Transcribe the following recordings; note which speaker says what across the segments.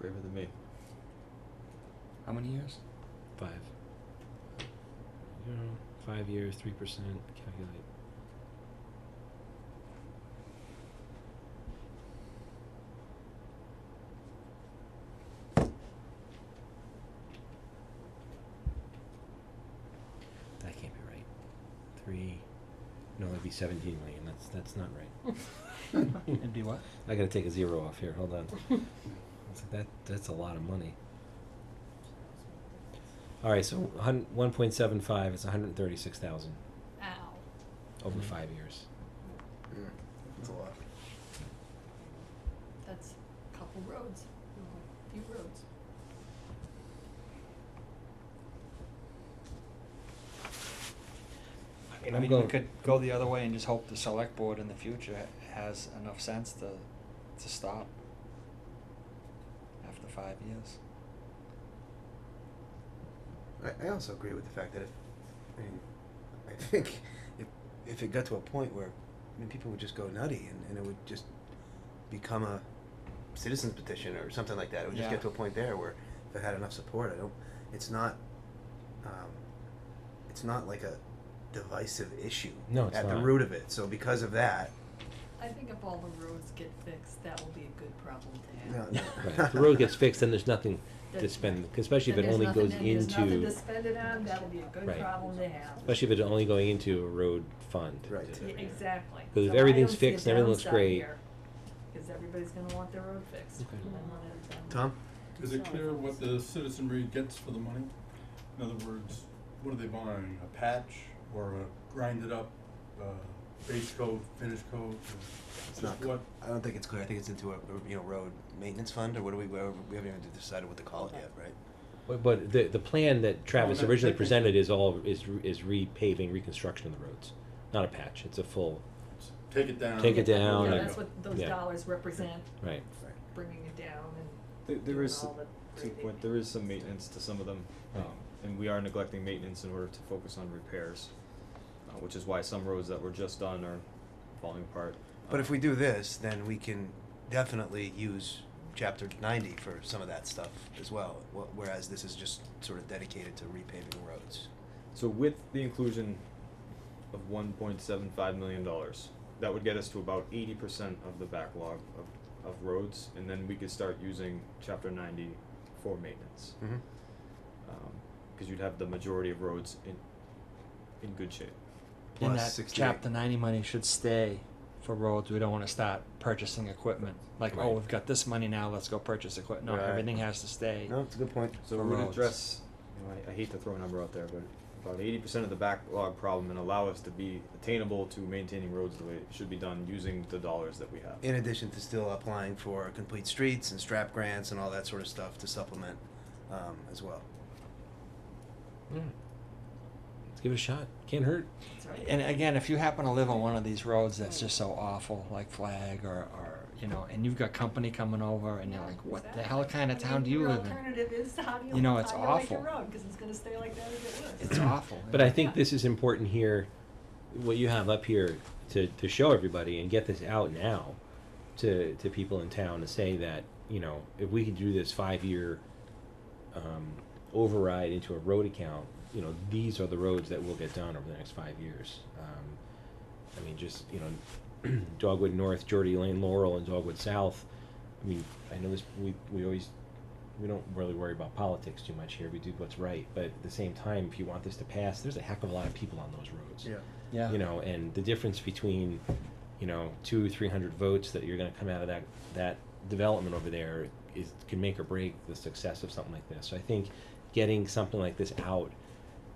Speaker 1: braver than me.
Speaker 2: How many years?
Speaker 3: Five. You know, five years, three percent. Calculate. That can't be right. Three. No, that'd be seventeen million. That's that's not right.
Speaker 2: It'd be what?
Speaker 3: I gotta take a zero off here. Hold on. It's like, that that's a lot of money. All right, so hun- 1.75 is 136,000
Speaker 4: Ow.
Speaker 3: over
Speaker 2: Mhm.
Speaker 3: 5 years.
Speaker 1: Yeah, that's a lot.
Speaker 4: That's a couple roads, a few roads.
Speaker 3: mean,
Speaker 2: I
Speaker 3: I'm
Speaker 2: mean, we
Speaker 3: going-
Speaker 2: could go the other way and just hope the select board in the future ha- has enough sense to, to stop after five years.
Speaker 1: I, I also agree with the fact that if, I mean, I think if, if it got to a point where, I mean, people would just go nutty and, and it would just become a citizen's petition or something like that. It would just
Speaker 2: Yeah.
Speaker 1: get to a point there where if it had enough support, I don't, it's not, um, it's not like a divisive issue
Speaker 3: No, it's
Speaker 1: at the
Speaker 3: not.
Speaker 1: root of it. So because of that,
Speaker 4: I think if all the roads get fixed, that will be a good problem to
Speaker 1: no,
Speaker 4: have.
Speaker 1: no.
Speaker 3: Right. If the road gets fixed, then there's nothing to
Speaker 4: That's
Speaker 3: spend,
Speaker 4: right.
Speaker 3: 'cause especially if
Speaker 4: Then
Speaker 3: it only
Speaker 4: there's nothing
Speaker 3: goes
Speaker 4: to- There's nothing to
Speaker 3: into,
Speaker 4: spend it on, that'll be a good
Speaker 3: Right.
Speaker 4: problem to have.
Speaker 3: especially if it's only going into a road fund.
Speaker 1: Right.
Speaker 4: Yeah, Exactly.
Speaker 3: 'Cause if
Speaker 4: So I
Speaker 3: everything's
Speaker 4: don't see a
Speaker 3: fixed and everything looks
Speaker 4: downside
Speaker 3: great-
Speaker 4: here, Cause everybody's gonna want their road fixed.
Speaker 3: Okay.
Speaker 4: and I want it done.
Speaker 1: Tom?
Speaker 5: Is it clear what the citizenry gets for the money? In other words, what are they buying, a patch or a grinded up, uh, base coat, finish coat? or
Speaker 1: It's
Speaker 5: just
Speaker 1: not.
Speaker 5: What,
Speaker 1: I don't think it's clear. I think it's into a a, you know road maintenance fund or what do we? where- We haven't even decided what to call it yet, right?
Speaker 3: But- But the, the plan that Travis
Speaker 5: that-
Speaker 3: originally
Speaker 5: that-
Speaker 3: presented is all, is, re- is repaving, reconstruction of the roads. Not a patch, it's a full,
Speaker 5: take it down?
Speaker 3: Take it
Speaker 4: Yeah,
Speaker 3: down
Speaker 4: Yeah,
Speaker 3: and-
Speaker 4: that's what those
Speaker 3: yeah.
Speaker 4: dollars represent,
Speaker 3: right.
Speaker 1: Right.
Speaker 4: bringing it down and
Speaker 6: There, there
Speaker 4: doing
Speaker 6: is,
Speaker 4: all the
Speaker 6: to your
Speaker 4: grading.
Speaker 6: point, there is some maintenance to some of them, um, and we are neglecting maintenance in order to focus on repairs, uh, which is why some roads that were just done are falling apart.
Speaker 1: But
Speaker 6: Um,
Speaker 1: if we do this, then we can definitely use chapter ninety for some of that stuff as well. wh- Whereas this is just sort of dedicated to repaving roads.
Speaker 6: So with the inclusion of one point seven five million dollars, that would get us to about eighty percent of the backlog of, of roads, and then we could start using chapter ninety for maintenance.
Speaker 1: Mm-hmm.
Speaker 6: Because um, you'd have the majority of roads in, in good shape.
Speaker 2: And
Speaker 1: Plus
Speaker 2: that
Speaker 1: 68.
Speaker 2: chapter ninety money should stay for roads, we don't wanna start purchasing equipment, like, oh,
Speaker 3: Right.
Speaker 2: we've got this money now, let's go purchase equipment, no,
Speaker 1: Right.
Speaker 2: everything has to stay.
Speaker 1: No, it's a good point.
Speaker 6: So
Speaker 2: for
Speaker 6: we would
Speaker 2: roads.
Speaker 6: address, you know, I, I hate to throw a number out there, but about eighty percent of the backlog problem and allow us to be attainable to maintaining roads the way it should be done using the dollars that we have.
Speaker 1: In addition to still applying for complete streets and strap grants and all that sort of stuff to supplement um, as well.
Speaker 2: Hmm.
Speaker 3: Yeah. Let's give it a shot, can't hurt.
Speaker 4: That's right.
Speaker 2: And again, if you happen to live on one of these roads that's just so awful, like Flag or, or, you know, and you've got company coming over and you're like, what the hell kind of town do you live
Speaker 4: I mean,
Speaker 2: in?
Speaker 4: your alternative is how do you,
Speaker 2: You know, it's
Speaker 4: how do you like your
Speaker 2: awful.
Speaker 4: road, cause it's gonna stay like that if it was.
Speaker 2: It's awful.
Speaker 3: But I think this is important here, what you have up here to, to show everybody and get this out now to, to people in town to say that, you know, if we could do this five-year, um, override into a road account, you know, these are the roads that will get done over the next five years. Um, I mean, just, you know, Dogwood North, Geordie Lane, Laurel, and Dogwood South. I mean, I know this, we, we always, we don't really worry about politics too much here. We do what's right. But at the same time, if you want this to pass, there's a heck of a lot of people on those roads.
Speaker 2: Yeah.
Speaker 3: You know, and the difference between, you know, two, three hundred votes that you're gonna come out of that, that development over there is, can make or break the success of something like this. So I think getting something like this out,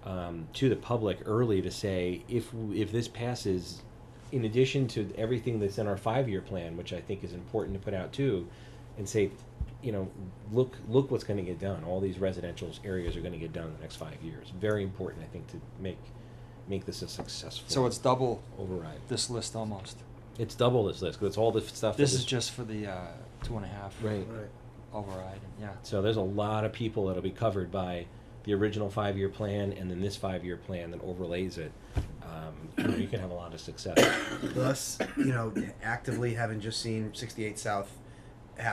Speaker 3: um, to the public early to say, if, w- if this passes, in addition to everything that's in our five-year plan, which I think is important to put out too, and say, you know, look, look what's gonna get done. All these residential areas are gonna get done in the next five years. Very important, I think, to make, make this a successful
Speaker 2: So it's double
Speaker 3: override.
Speaker 2: this list almost.
Speaker 3: It's double this list because it's all the f- stuff. that
Speaker 2: This
Speaker 3: was-
Speaker 2: is just for the, uh, two and a half.
Speaker 3: Right.
Speaker 2: Override, yeah.
Speaker 3: So there's a lot of people that'll be covered by the original five-year plan and then this five-year plan that overlays it. Um, you, know, you can have a lot of success.
Speaker 1: Plus, you know, actively having just seen 68 South